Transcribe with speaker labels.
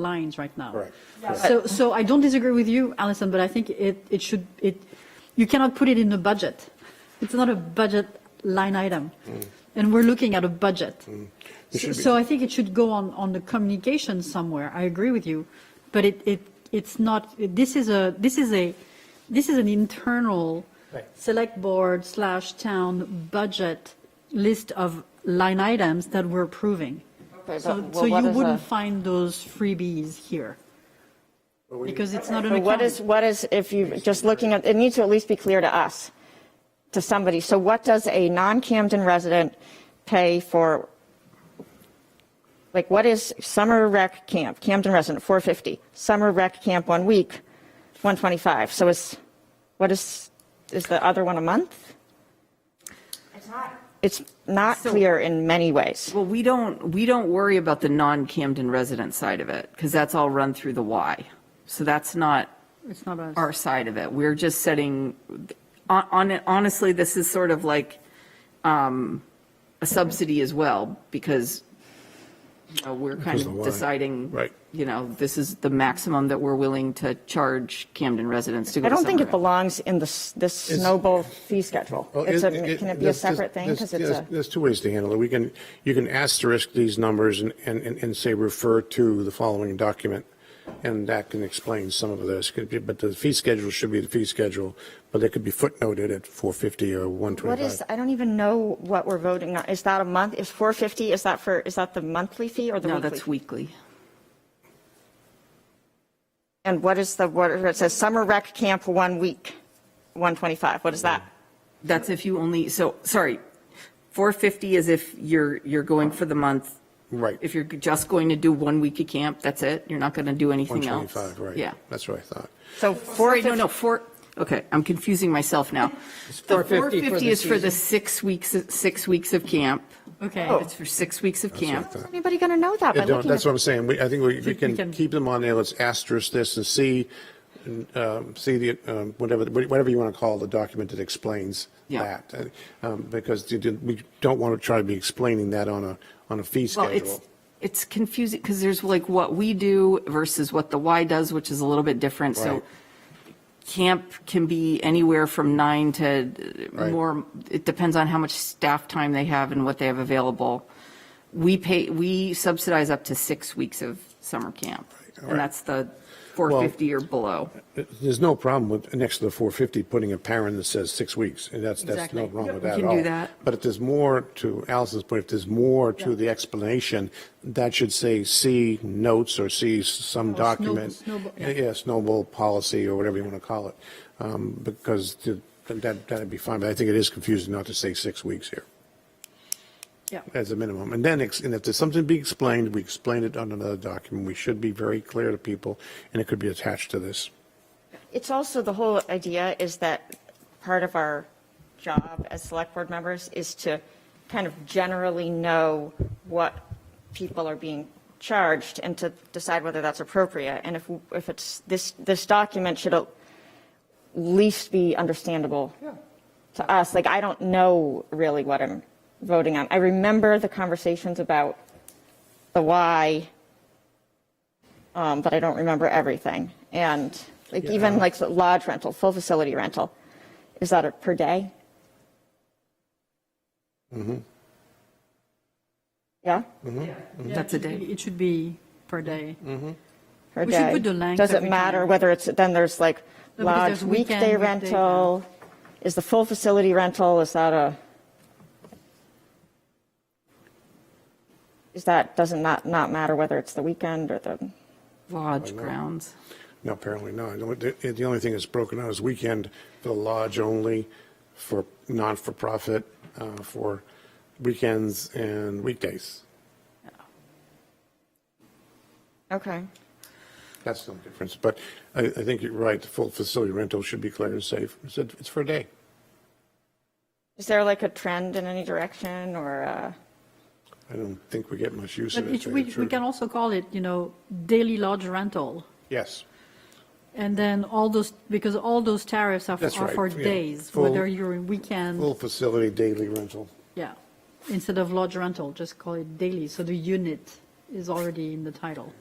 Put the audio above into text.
Speaker 1: lines right now.
Speaker 2: Correct.
Speaker 1: So, so I don't disagree with you, Alison, but I think it, it should, it, you cannot put it in the budget. It's not a budget line item. And we're looking at a budget.
Speaker 2: Mm. It should be-
Speaker 1: So I think it should go on, on the communication somewhere. I agree with you. But it, it, it's not, this is a, this is a, this is an internal
Speaker 3: Right.
Speaker 1: select board slash town budget list of line items that we're approving.
Speaker 4: Okay, but
Speaker 1: So,
Speaker 4: wh-
Speaker 1: so
Speaker 4: what
Speaker 1: you
Speaker 4: is
Speaker 1: wouldn't
Speaker 4: a-
Speaker 1: find those freebies here. Because it's not an
Speaker 4: So
Speaker 1: account.
Speaker 4: what is, what is, if you, just looking at, it needs to at least be clear to us, to somebody. So what does a non-Camden resident pay for, like, what is summer rec camp, Camden resident, 450, summer rec camp one week, 125? So is, what is, is the other one a month? It's not
Speaker 5: So-
Speaker 4: clear in many ways.
Speaker 5: Well, we don't, we don't worry about the non-Camden resident side of it, because that's all run through the Y. So that's not
Speaker 1: It's not us.
Speaker 5: our side of it. We're just setting, hon- hon- honestly, this is sort of like um, a subsidy as well, because, you know, we're kind
Speaker 2: Because of the
Speaker 5: of
Speaker 2: Y.
Speaker 5: deciding,
Speaker 2: Right.
Speaker 5: you know, this is the maximum that we're willing to charge Camden residents to go
Speaker 4: I
Speaker 5: to
Speaker 4: don't think
Speaker 5: summer
Speaker 4: it
Speaker 5: camp.
Speaker 4: belongs in this, this snowball fee schedule.
Speaker 2: Well,
Speaker 4: It's a,
Speaker 2: it-
Speaker 4: can it be a
Speaker 2: there's- there's-
Speaker 4: separate thing?
Speaker 2: there's-
Speaker 4: Because it's
Speaker 2: there's-
Speaker 4: a.
Speaker 2: There's two ways to handle it. We can, you can asterisk these numbers and, and, and and say refer to the following document, and that can explain some of this. Could be- But the fee schedule should be the fee schedule, but it could be footnoted at 450 or
Speaker 4: What is,
Speaker 2: 125.
Speaker 4: I don't even know what we're voting on. Is that a month? Is 450, is that for, is that the monthly fee or the
Speaker 5: No,
Speaker 4: weekly?
Speaker 5: that's weekly.
Speaker 4: And what is the, what, it says summer rec camp one week, 125. What is that?
Speaker 5: That's if you only, so, sorry, 450 is if you're, you're going for the month.
Speaker 2: Right.
Speaker 5: If you're just going to do one week of camp, that's it. You're not going to do anything else.
Speaker 2: 125, right.
Speaker 5: Yeah.
Speaker 2: That's what I thought.
Speaker 4: So
Speaker 5: Sorry,
Speaker 4: 450.
Speaker 5: no, no, four, okay, I'm confusing myself now.
Speaker 3: 450 for
Speaker 5: The
Speaker 3: the
Speaker 5: 450 is for
Speaker 3: season. Oh.
Speaker 5: the six weeks, six weeks of camp.
Speaker 1: Okay.
Speaker 4: Oh.
Speaker 5: It's for six weeks of
Speaker 2: what I
Speaker 5: camp.
Speaker 2: thought.
Speaker 4: Anybody going to know that by
Speaker 2: Yeah, don't-
Speaker 4: looking at?
Speaker 2: That's what I'm saying. We, I think we, we
Speaker 1: can-
Speaker 2: can keep them on there. Let's asterisk this and see, um, see the, um, whatever, whatever you want to call the document that explains
Speaker 5: Yeah.
Speaker 2: that. Uh, um, Because you did- we don't want to try to be explaining that on a, on a fee
Speaker 5: Well, it's,
Speaker 2: schedule.
Speaker 5: it's confusing because there's like what we do versus what the Y does, which is a little bit different. So
Speaker 2: Right.
Speaker 5: camp can be anywhere from nine to uh,
Speaker 2: Right.
Speaker 5: more, it depends on how much staff time they have and what they have available. We pay, we subsidize up to six weeks of summer camp.
Speaker 2: Right.
Speaker 5: And that's the 450 or below.
Speaker 2: There's no problem with, next to the 450, putting a parent that says six weeks. And that's, that's
Speaker 1: Exactly.
Speaker 2: no wrong with
Speaker 5: We
Speaker 2: that at
Speaker 5: can
Speaker 2: all.
Speaker 5: do that.
Speaker 2: But if there's more to Allison's point, if there's more to the explanation, that should say, see notes or see s- some
Speaker 1: snow-
Speaker 2: document.
Speaker 1: snowball- yeah.
Speaker 2: Yeah, snowball policy or whatever you want to call it, um, because to- that, that'd be fine. But I think it is confusing not to say six weeks here
Speaker 1: Yeah.
Speaker 2: as a minimum. And then, ex- and if there's something to be explained, we explain it on another document. We should be very clear to people, and it could be attached to this.
Speaker 4: It's also, the whole idea is that part of our job as select board members is to kind of generally know what people are being charged and to decide whether that's appropriate. And if, if it's, this, this document should at least be understandable to us. Like, I don't know really what I'm voting on. I remember the conversations about the why, um, but I don't remember everything. And like even like the lodge rental, full facility rental, is that a per day? Mm-hmm. Yeah,
Speaker 5: That's a day.
Speaker 1: It should be per day.
Speaker 2: Mm.
Speaker 4: per
Speaker 1: We
Speaker 4: day.
Speaker 1: should put the length
Speaker 4: Does it
Speaker 1: every
Speaker 4: matter
Speaker 1: time.
Speaker 4: whether it's then there's like
Speaker 1: No, because
Speaker 4: lodge
Speaker 1: there's weekend,
Speaker 4: weekday
Speaker 1: weekday,
Speaker 4: rental? Is the full facility rental is that a? Is that doesn't not not matter whether it's the weekend or the?
Speaker 5: Lodge grounds.
Speaker 2: No, apparently not. The only- The the only thing that's broken out is weekend for the lodge only, for non-for-profit, uh, for weekends and weekdays.
Speaker 4: Okay.
Speaker 2: That's no difference, but I, I think you're right, the full facility rental should be clear and safe. It's, a- it's for a day.
Speaker 4: Is there like a trend in any direction or, uh,
Speaker 2: I don't think we get much use
Speaker 1: But
Speaker 2: of it.
Speaker 1: it,
Speaker 2: to
Speaker 1: we,
Speaker 2: tell you the
Speaker 1: we can
Speaker 2: truth.
Speaker 1: also call it, you know, daily lodge rental.
Speaker 2: Yes,
Speaker 1: And then all those, because all those tariffs are,
Speaker 2: That's
Speaker 1: are
Speaker 2: right,
Speaker 1: for
Speaker 2: yeah.
Speaker 1: days,
Speaker 2: Full-
Speaker 1: whether you're in weekend,
Speaker 2: full facility daily rental.
Speaker 1: yeah. Instead of lodge rental, just call it daily, so the unit is already in the title.